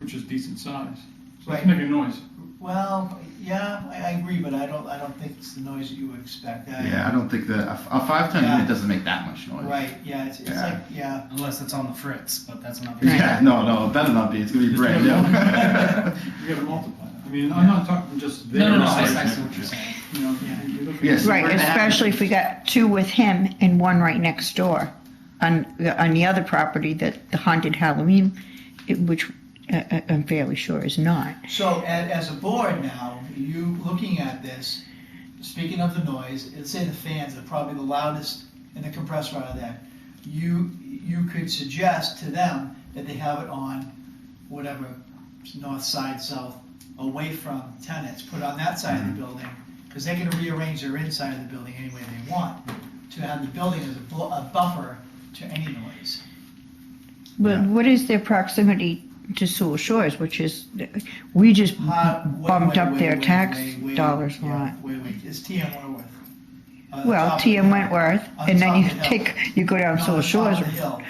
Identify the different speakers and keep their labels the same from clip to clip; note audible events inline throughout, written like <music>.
Speaker 1: which is decent size. So it's
Speaker 2: Right.
Speaker 1: making noise.
Speaker 2: Well, yeah, I, I agree, but I don't, I don't think it's the noise that you expect. I-
Speaker 3: Yeah, I don't think that a, a five ton
Speaker 2: Yeah.
Speaker 3: unit doesn't make that much noise.
Speaker 2: Right, yeah, it's, it's
Speaker 3: Yeah.
Speaker 2: like, yeah,
Speaker 4: Unless it's on the fritz, but that's another.
Speaker 3: <laughs> Yeah, no, no, it better not be. It's gonna be brand new. <laughs>
Speaker 1: You gotta multiply. it. I mean, I'm not talking just there.
Speaker 4: No, no, no, I, I see what you're saying.
Speaker 1: You know, you're looking.
Speaker 3: Yes.
Speaker 5: Right,
Speaker 3: We're gonna have-
Speaker 5: especially if we got two with him and one right next door on, the- on the other property that the haunted Halloween, it- which uh, uh, I'm fairly sure is not.
Speaker 2: so a- as, as a board now, you looking at this, speaking of the noise, let's say the fans are probably the loudest in the compressor out of that. You, you could suggest to them that they have it on whatever, north side, south, away from tenants, put it on that side of the building, because they can rearrange their inside of the building any way they want, to have the building as a bu- a buffer to any noise.
Speaker 5: But what is their proximity to Sewell Shores, which is, we just
Speaker 2: Hot- Uh, wait,
Speaker 5: bumped
Speaker 2: wait,
Speaker 5: up
Speaker 2: wait,
Speaker 5: their
Speaker 2: wait,
Speaker 5: tax
Speaker 2: wait, wait,
Speaker 5: dollars a
Speaker 2: yeah,
Speaker 5: lot.
Speaker 2: Wait, wait, it's TM Wentworth. On the
Speaker 5: Well,
Speaker 2: top of
Speaker 5: TM
Speaker 2: the-
Speaker 5: Wentworth,
Speaker 2: on the
Speaker 5: and then
Speaker 2: top
Speaker 5: you
Speaker 2: of the hill.
Speaker 5: take, you go down
Speaker 2: No,
Speaker 5: Sewell
Speaker 2: the top of
Speaker 5: Shores,
Speaker 2: the hill.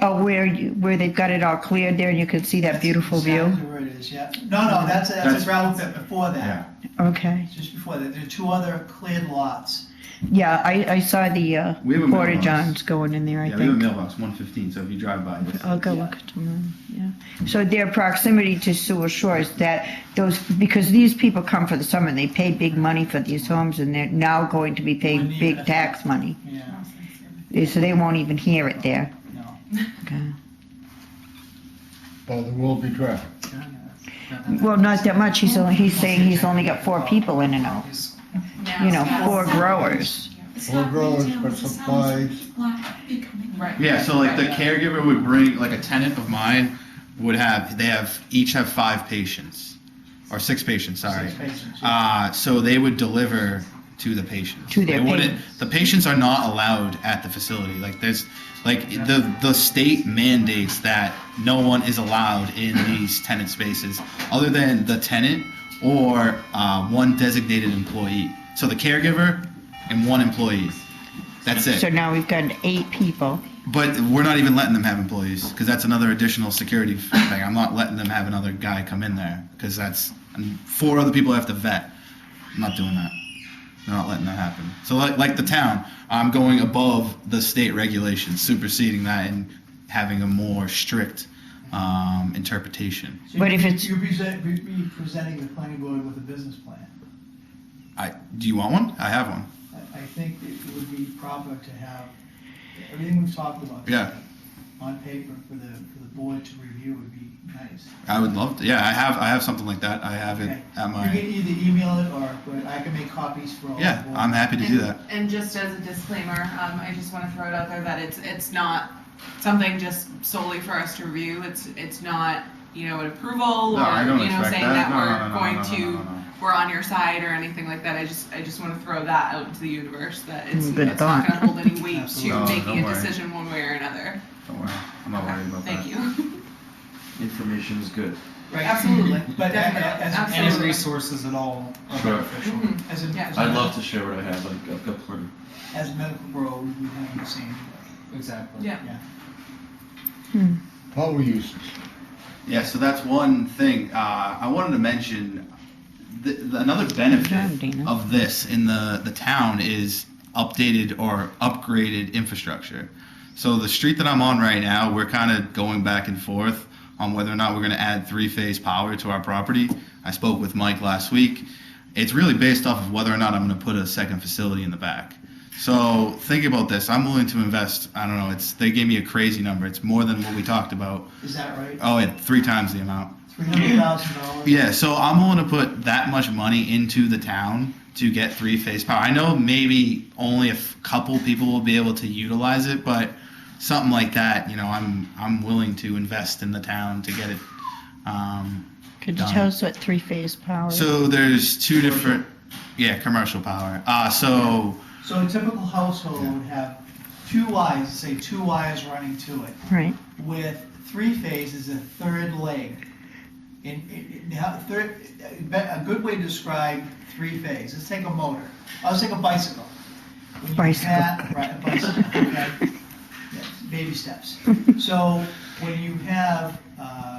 Speaker 5: oh, where you, where they've got it all cleared there and you can see that
Speaker 2: That's
Speaker 5: beautiful view.
Speaker 2: Exactly where it is, yeah. No, no, that's, a- that's
Speaker 3: That's-
Speaker 2: a gravel pit before
Speaker 3: Yeah.
Speaker 2: that,
Speaker 5: Okay,
Speaker 2: just before that. There are two other cleared lots.
Speaker 5: yeah, I, I saw the, uh,
Speaker 3: We have a
Speaker 5: Porta
Speaker 3: mailbox.
Speaker 5: Johns going in there, I
Speaker 3: yeah, we have a
Speaker 5: think.
Speaker 3: mailbox 115. So if you drive by, it's,
Speaker 5: I'll go
Speaker 2: Yeah.
Speaker 5: look at them, yeah. So their proximity to Sewell Shores, that, those, because these people come for the summer, and they pay big money for these homes, and they're now going to be paying
Speaker 2: Wouldn't even
Speaker 5: big tax money.
Speaker 2: Yeah,
Speaker 5: So they won't even hear it there.
Speaker 2: no.
Speaker 5: Okay.
Speaker 6: But there will be traffic.
Speaker 5: Well, not that much, he's only, he's saying he's only got four people in and out,
Speaker 4: He's-
Speaker 5: you know, four growers.
Speaker 6: Four growers, but supplies,
Speaker 7: Right.
Speaker 3: yeah. So like the
Speaker 7: Right.
Speaker 3: caregiver would bring like a tenant of mine would have they have each have five patients or six patients. Sorry.
Speaker 2: Six patients, yeah.
Speaker 3: Uh, so they would deliver to the patients.
Speaker 5: To their
Speaker 3: They wouldn't-
Speaker 5: patients.
Speaker 3: The patients are not allowed at the facility. Like there's, like the the state mandates that no one is allowed in these tenant spaces other than the tenant or uh, one designated employee. So the caregiver and one employee. That's
Speaker 5: So
Speaker 3: it.
Speaker 5: now we've got eight people.
Speaker 3: But we're not even letting them have employees because that's another additional security thing. I'm not letting them have another guy come in there because that's and four other people I have to vet. I'm not doing that. They're not letting that happen. So like like the town, I'm going above the state regulations, superseding that and having a more strict um, interpretation.
Speaker 2: So
Speaker 5: But
Speaker 2: you-
Speaker 5: if it's-
Speaker 2: You're present- you'd be presenting the planning board with a business plan.
Speaker 3: I do you want one? I have one.
Speaker 2: I, I think it would be proper to have everything we've talked about.
Speaker 3: Yeah.
Speaker 2: On paper for the, for the board to review would be nice.
Speaker 3: I would love to. Yeah, I have I have something like that. I have it
Speaker 2: Okay.
Speaker 3: at
Speaker 2: You can
Speaker 3: my.
Speaker 2: either email it or, but I can make copies for all. the
Speaker 3: Yeah,
Speaker 2: board.
Speaker 3: I'm happy to do that.
Speaker 7: And just as a disclaimer, um, I just want to throw it out there that it's, it's not something just solely for us to review. It's, it's not, you know, an approval or, you know, saying that we're going to, we're on your side or anything like that. I just, I just want to throw that out into the universe that it's,
Speaker 5: Mm, Good
Speaker 7: it's not
Speaker 5: thought.
Speaker 7: going to hold any weight
Speaker 2: Absolutely.
Speaker 7: to
Speaker 3: No, don't
Speaker 7: making a
Speaker 3: worry.
Speaker 7: decision one way or another.
Speaker 3: Don't worry, I'm not worried about
Speaker 7: Thank
Speaker 3: that.
Speaker 7: you.
Speaker 8: Information is good.
Speaker 2: Right.
Speaker 7: Absolutely.
Speaker 2: But a- a-
Speaker 7: Definitely.
Speaker 2: as,
Speaker 7: Absolutely.
Speaker 4: And his resources and all are
Speaker 8: Sure.
Speaker 4: beneficial.
Speaker 7: <laughs> Mhm.
Speaker 2: as, a-
Speaker 7: Yeah.
Speaker 2: as a-
Speaker 8: I'd love to share what I have, like a couple of.
Speaker 2: As a medical bro, we have the same.
Speaker 4: Exactly.
Speaker 7: Yeah.
Speaker 6: power uses.
Speaker 3: Yeah, so that's one thing. Uh, I wanted to mention th- th- another
Speaker 5: Good job,
Speaker 3: benefit
Speaker 5: Dana.
Speaker 3: of this in the, the town is updated or upgraded infrastructure. So the street that I'm on right now, we're kind of going back and forth on whether or not we're going to add three phase power to our property. I spoke with Mike last week. It's really based off of whether or not I'm going to put a second facility in the back. So think about this. I'm willing to invest. I don't know. It's they gave me a crazy number. It's more than what we talked about.
Speaker 2: Is that right?
Speaker 3: Oh, yeah, three times the amount.
Speaker 2: Three hundred thousand dollars?
Speaker 3: Yeah, so I'm willing to put that much money into the town to get three phase power. I know maybe only a f- couple people will be able to utilize it, but something like that, you know, I'm I'm willing to invest in the town to get it. Um,
Speaker 5: Could you tell us what three-phase power? is?
Speaker 3: so there's two different, yeah, commercial power. Uh, so
Speaker 2: So a typical household would have two wires, say two wires running to it.
Speaker 5: Right,
Speaker 2: with three phases, a third leg. And it- it- now, third, a good way to describe three phase, let's take a motor, Oh, let's take a bicycle. When you
Speaker 5: Bicycle.
Speaker 2: have- Right, a bicycle, okay? Yes, Baby steps. So when you have, uh,